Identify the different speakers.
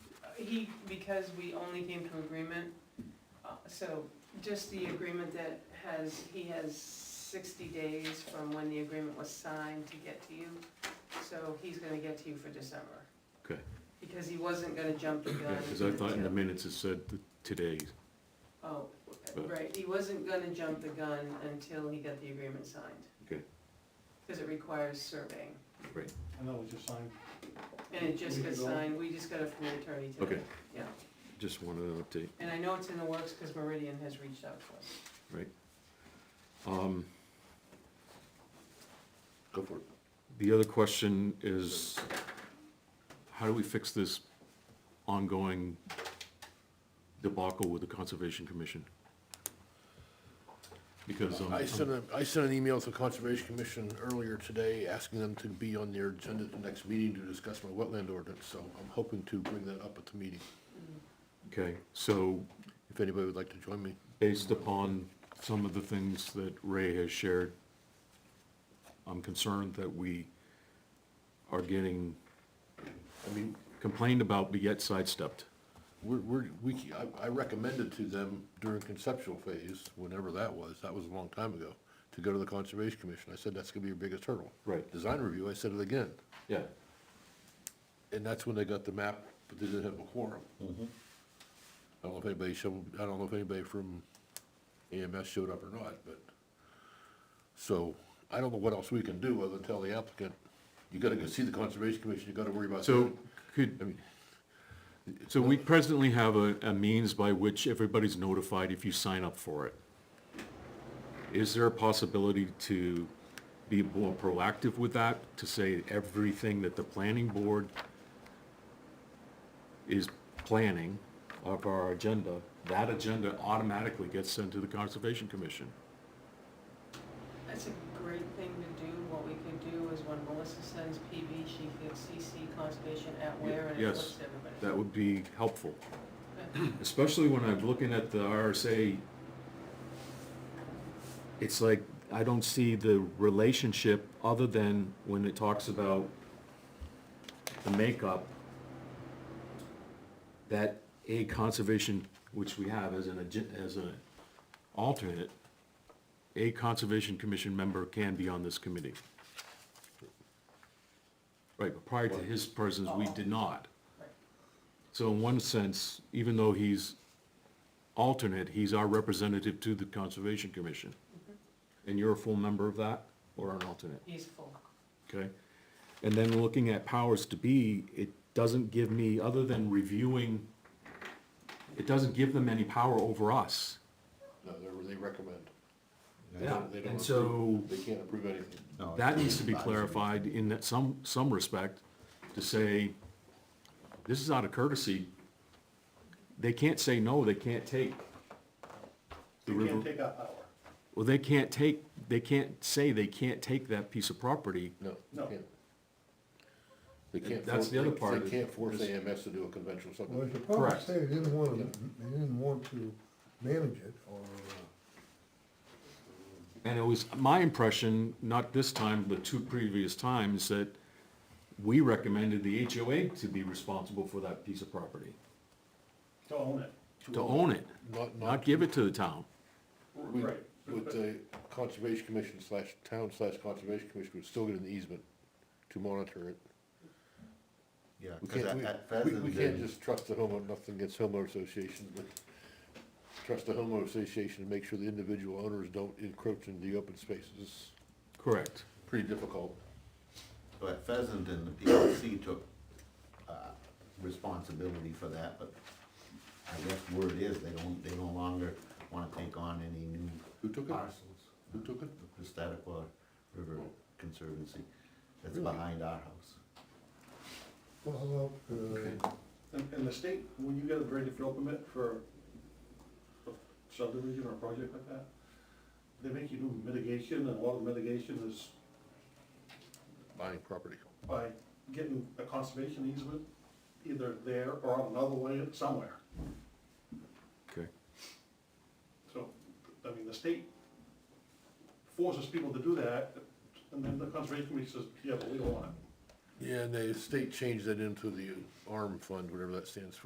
Speaker 1: he, because we only came to agreement, uh, so just the agreement that has, he has sixty days from when the agreement was signed to get to you. So he's gonna get to you for December.
Speaker 2: Okay.
Speaker 1: Because he wasn't gonna jump the gun.
Speaker 2: Yeah, because I thought in the
Speaker 1: until-
Speaker 2: minutes it said th- today.
Speaker 1: Oh,
Speaker 2: But-
Speaker 1: right, he wasn't gonna jump the gun until he got the agreement signed.
Speaker 2: Okay.
Speaker 1: Because it requires surveying,
Speaker 3: I know, we just signed.
Speaker 1: and it just got
Speaker 3: Week ago.
Speaker 1: signed, we just got it from the attorney today.
Speaker 2: Okay.
Speaker 1: Yeah.
Speaker 2: Just wanted an update.
Speaker 1: And I know it's in the works because Meridian has reached out to us.
Speaker 2: Um,
Speaker 4: Go for it.
Speaker 2: The other question is, how do we fix this ongoing debacle with the Conservation Commission? Because, um,
Speaker 4: I sent a, I sent an email to Conservation Commission earlier today, asking them to be on their agenda at the next meeting to discuss my wetland ordinance, so I'm hoping to bring that up at the meeting,
Speaker 2: okay, so
Speaker 4: if anybody would like to join me.
Speaker 2: based upon some of the things that Ray has shared, I'm concerned that we are getting
Speaker 4: I mean,
Speaker 2: complained about but yet sidestepped.
Speaker 4: we're, we're, we, I, I recommended to them during conceptual phase, whenever that was, that was a long time ago, to go to the Conservation Commission, I said, that's gonna be your biggest hurdle.
Speaker 2: Right.
Speaker 4: Design review, I said it again,
Speaker 2: Yeah.
Speaker 4: and that's when they got the map, but they didn't have a quorum. I don't know if anybody showed, I don't know if anybody from AMS showed up or not, but, so, I don't know what else we can do other than tell the applicant, you gotta go see the Conservation Commission, you gotta worry about that.
Speaker 2: So could,
Speaker 4: I mean,
Speaker 2: So we presently have a, a means by which everybody's notified if you sign up for it. Is there a possibility to be more proactive with that, to say everything that the planning board is planning of our agenda, that agenda automatically gets sent to the Conservation Commission?
Speaker 1: That's a great thing to do. What we could do is when Melissa sends PB, she could CC conservation at where and it
Speaker 2: Yes.
Speaker 1: flips to everybody.
Speaker 2: That would be helpful,
Speaker 1: Okay.
Speaker 2: especially when I'm looking at the RSA. It's like, I don't see the relationship other than when it talks about the makeup that a conservation, which we have as an, agen- as an alternate, a conservation commission member can be on this committee. Right, but prior to his presence, we did not.
Speaker 1: Right.
Speaker 2: So in one sense, even though he's alternate, he's our representative to the Conservation Commission. And you're a full member of that or an alternate,
Speaker 1: He's full.
Speaker 2: okay? And then looking at powers to be, it doesn't give me, other than reviewing, it doesn't give them any power over us.
Speaker 4: No, they're- they recommend. They
Speaker 2: Yeah,
Speaker 4: don't- they don't
Speaker 2: and so
Speaker 4: approve. They can't approve anything.
Speaker 5: No,
Speaker 2: that
Speaker 5: it's
Speaker 2: needs to be
Speaker 5: advisory.
Speaker 2: clarified in that some, some respect to say, this is out of courtesy. They can't say no, they can't take. the
Speaker 3: You
Speaker 2: river-
Speaker 3: can't take out power.
Speaker 2: Well, they can't take, they can't say they can't take that piece of property.
Speaker 4: No,
Speaker 3: No.
Speaker 4: they can't. They can't.
Speaker 2: That's
Speaker 4: force-
Speaker 2: the other
Speaker 4: they-
Speaker 2: part of
Speaker 4: They
Speaker 2: it.
Speaker 4: can't force AMS to do a conventional
Speaker 5: Well,
Speaker 4: subdivision.
Speaker 5: the problem
Speaker 2: Correct.
Speaker 5: say they didn't want to, they didn't want to manage it or, uh,
Speaker 2: And it was my impression, not this time, but two previous times, that we recommended the HOA to be responsible for that piece of property,
Speaker 3: To own it.
Speaker 2: to own it,
Speaker 4: Not,
Speaker 2: not
Speaker 4: not
Speaker 2: give it to the town.
Speaker 4: with,
Speaker 3: Right.
Speaker 4: with the conservation commission slash town slash conservation commission would still get an easement to monitor it.
Speaker 5: yeah,
Speaker 4: We
Speaker 5: 'cause
Speaker 4: can't,
Speaker 5: at-
Speaker 4: we-
Speaker 5: at
Speaker 4: we, we can't
Speaker 5: Pheasant,
Speaker 4: just trust the homeowner, nothing against homeowner association, but trust the homeowner association to make sure the individual owners don't encroach into the open spaces is
Speaker 2: Correct.
Speaker 4: pretty difficult.
Speaker 5: so at Pheasanton, the PLC took, uh, responsibility for that, but I guess word is they don't, they no longer wanna take on any new
Speaker 4: Who took it?
Speaker 5: parcels.
Speaker 4: Who took it?
Speaker 5: The Piscataqua River Conservancy, that's
Speaker 4: Really?
Speaker 5: behind our house.
Speaker 6: Well, uh,
Speaker 3: And, and the state, when you get a ready fill permit for a subdivision or a project like that, they make you do mitigation, and a lot of mitigation is
Speaker 4: Buying property.
Speaker 3: by getting a conservation easement, either there or on another way somewhere.
Speaker 2: Okay.
Speaker 3: So, I mean, the state forces people to do that, and then the conservation commission says, yeah, but we don't want it.
Speaker 4: Yeah, and the state changed that into the ARM fund, whatever that stands for.